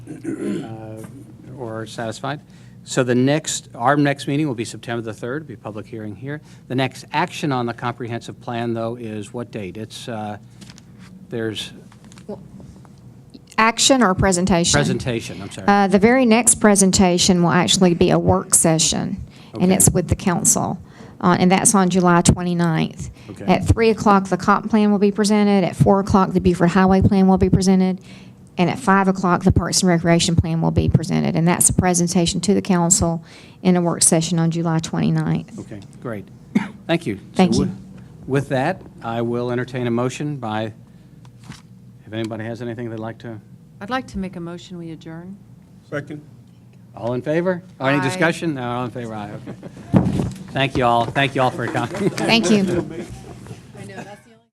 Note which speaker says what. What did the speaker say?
Speaker 1: uh, or satisfied. So the next, our next meeting will be September the 3rd, be a public hearing here. The next action on the comprehensive plan, though, is what date? It's, uh, there's
Speaker 2: Action or presentation?
Speaker 1: presentation, I'm sorry.
Speaker 2: Uh, The very next presentation will actually be a work session, and
Speaker 1: Okay.
Speaker 2: it's with the council, uh, and that's on July 29th.
Speaker 1: Okay.
Speaker 2: At 3 o'clock, the comp plan will be presented, at 4 o'clock, the Beaufort Highway Plan will be presented, and at 5 o'clock, the Parks and Recreation Plan will be presented, and that's a presentation to the council in a work session on July 29th.
Speaker 1: Okay, great. Thank you. So
Speaker 2: Thank you.
Speaker 1: wi- With that, I will entertain a motion by, if anybody has anything they'd like to,
Speaker 3: I'd like to make a motion, we adjourn.
Speaker 4: Second.
Speaker 1: all in favor? Or Any
Speaker 3: Aye.
Speaker 1: discussion? No, all in favor, aye, okay. Thank you all, thank you all for coming.
Speaker 2: Thank you.